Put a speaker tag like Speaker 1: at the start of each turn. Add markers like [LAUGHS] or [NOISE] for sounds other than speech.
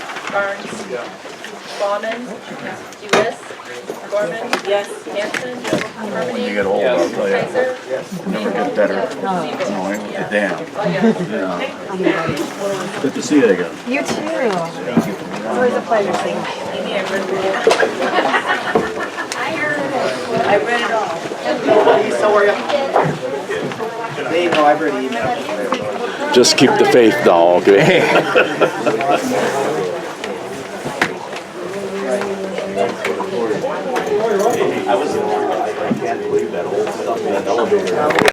Speaker 1: Barnes.
Speaker 2: Yeah.
Speaker 1: Bauman. Lewis. Gorman. Yes. Hanson.
Speaker 3: When
Speaker 1: Harmony.
Speaker 3: you get old, I'll tell you, it
Speaker 1: Kaiser.
Speaker 3: never get better. No, I ain't damn.
Speaker 1: Oh,
Speaker 3: Yeah. Good to see you again.
Speaker 4: You too. It's always a pleasure seeing you.
Speaker 1: I read it all.
Speaker 2: Dave, no, I've already emailed.
Speaker 5: Just keep the faith though,
Speaker 3: [LAUGHS]
Speaker 5: [LAUGHS] okay?